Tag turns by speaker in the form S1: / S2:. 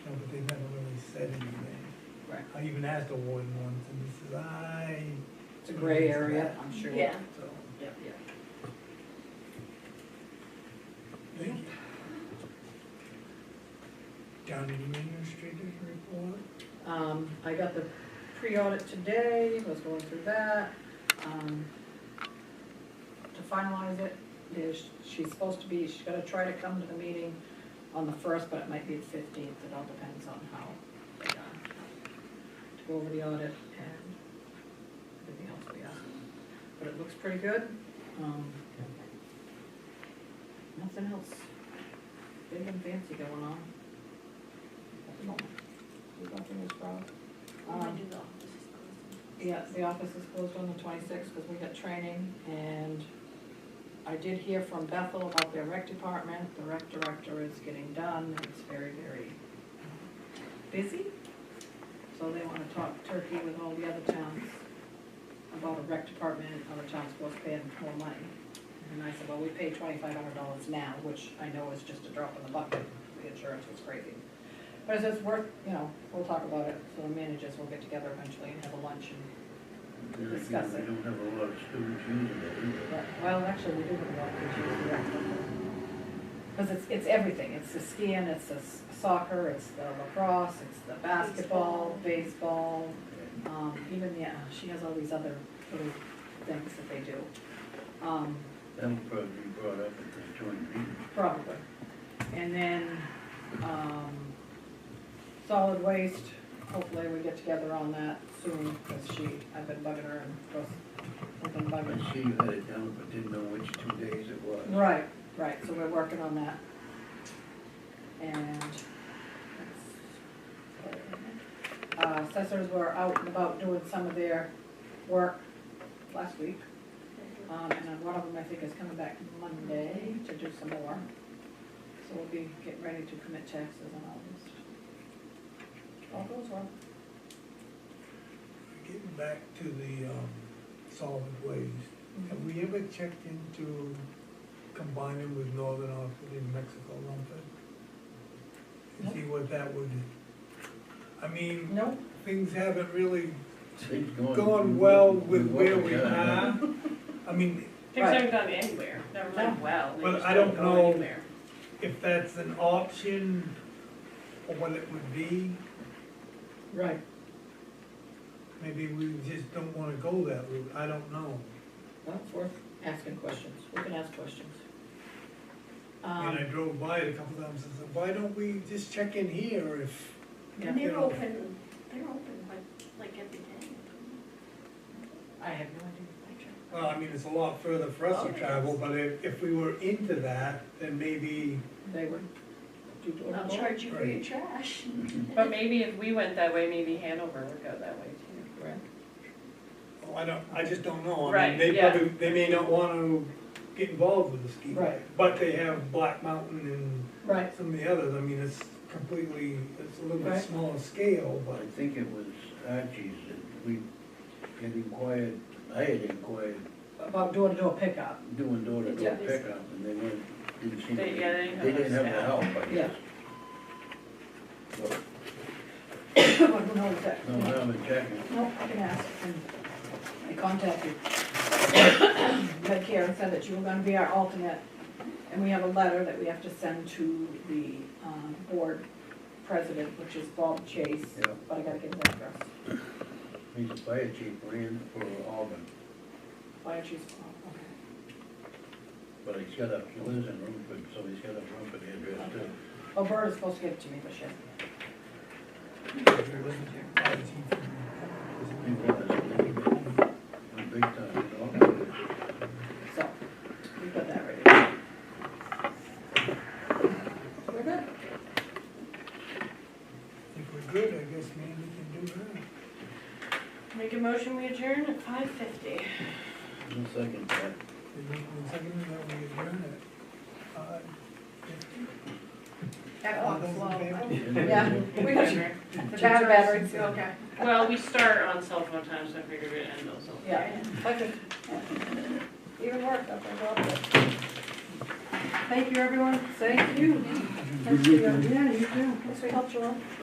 S1: said anything.
S2: Right.
S1: I even asked the warden once, and he says, I,
S2: It's a gray area, I'm sure.
S3: Yeah.
S1: so,
S2: Yeah, yeah.
S1: thank you. County administrator's report,
S2: Um, I got the pre-audit today, was going through that, um, to finalize it, there's, she's supposed to be, she's gonna try to come to the meeting on the first, but it might be the fifteenth, it all depends on how they, uh, to go over the audit and everything else we have, but it looks pretty good, um. Nothing else big and fancy going on at the moment.
S4: There's nothing as wrong.
S5: Oh,
S2: Um, Yeah, the office is closed on the twenty-sixth because we got training, and I did hear from Bethel about their rec department. The rec director is getting done, and it's very, very busy. So they wanna talk turkey with all the other towns about a rec department, and other towns supposed to pay them more money. And I said, well, we pay twenty-five hundred dollars now, which I know is just a drop in the bucket, the insurance was crazy. But it's just worth, you know, we'll talk about it, so the managers will get together eventually and have a lunch and Discuss it.
S6: We don't have a lot of students using it either.
S2: Right, Well, actually, we do have a lot of issues with Because it's, it's everything, it's the skiing, it's the s- soccer, it's the lacrosse, it's the basketball, baseball, um, even, yeah, she has all these other little things that they do. Um,
S6: That'll probably be brought up at the joint meeting.
S2: Probably. And then, um, solid waste, hopefully we get together on that soon, because she, I've been bugging her and, of course, I've been bugging her.
S6: I see you had it down, but didn't know which two days it was.
S2: Right, right, so we're working on that. And. Uh, assessors were out and about doing some of their work last week. Um, and then one of them, I think, is coming back Monday to do some more. So we'll be getting ready to commit taxes in August. All goes well.
S1: getting back to the, um, solid waste. Have we ever checked into combining with Northern Oxford in Mexico Lumber?
S2: No.
S1: To see what that would, I mean,
S2: No,
S1: things haven't really
S6: Things going.
S1: gone well with
S6: We
S1: where we
S6: worked it out.
S1: are. I mean,
S3: Things haven't gone anywhere, never mind well, they
S1: Well,
S3: just
S1: I
S3: don't
S1: don't
S3: go
S1: know.
S3: anywhere.
S1: if that's an option, or what it would be,
S2: right,
S1: maybe we just don't wanna go that route, I don't know.
S2: well, it's worth asking questions, we can ask questions.
S1: And I
S2: Um,
S1: drove by it a couple times, and said, why don't we just check in here if,
S2: yeah.
S5: And they're open, they're open like, like every day.
S2: I have no idea.
S1: well, I mean, it's a lot further for us to travel, but if, if we were into that, then maybe
S2: They would do door
S5: And I'll
S2: to door.
S5: charge you for your trash.
S3: But maybe if we went that way, maybe Hanover would go that way too.
S2: Right.
S1: Oh, I don't, I just don't know. I mean,
S3: Right,
S1: they
S3: yeah.
S1: probably, they may not wanna get involved with the ski.
S2: Right.
S1: But they have Black Mountain
S2: Right,
S1: and some of the others, I mean, it's completely, it's a little
S2: Right.
S1: bit smaller scale,
S6: Well,
S1: but.
S6: I think it was Archie's that we had inquired, I had inquired
S2: about door to door pickup,
S6: doing
S2: Yeah.
S6: door-to-door pickup and they weren't, didn't seem.
S3: They- yeah, they didn't have
S6: They didn't have the
S3: staff.
S6: help, I
S2: Yeah.
S6: guess. But,
S2: who knows that?
S6: no, now they're checking.
S2: Nope, I can ask, and I contacted Medicare and said that you were gonna be our alternate, and we have a letter that we have to send to the, um, board president, which is Bob Chase,
S6: Yeah.
S2: but I gotta get that first.
S6: He's the fire chief, ran for Auburn,
S2: Fire chief, oh, okay,
S6: but he's got a, he lives in Rumford, so he's got a Rumford address too.
S2: oh, Bert is supposed to give it to me, but she hasn't.
S6: He was a big, big time in Auburn.
S2: So, we've got that ready. We're good.
S1: If we're good, I guess Mandy can do that.
S3: Make a motion, we adjourn at five fifty.
S6: No second thought.
S1: They make one second, that we adjourn it. Uh,
S2: That
S1: all
S2: walks
S1: those in
S2: slow.
S1: favor?
S2: Yeah, we got you. The
S5: Charge
S2: batteries,
S5: you, Okay.
S3: Well, we start on cell phone time, so I figured we'd end on cell phone.
S2: Yeah, okay. Even work, that's a lot. Thank you, everyone. Thank you. Thanks for your- Yeah, you too. Thanks for your help, Joel.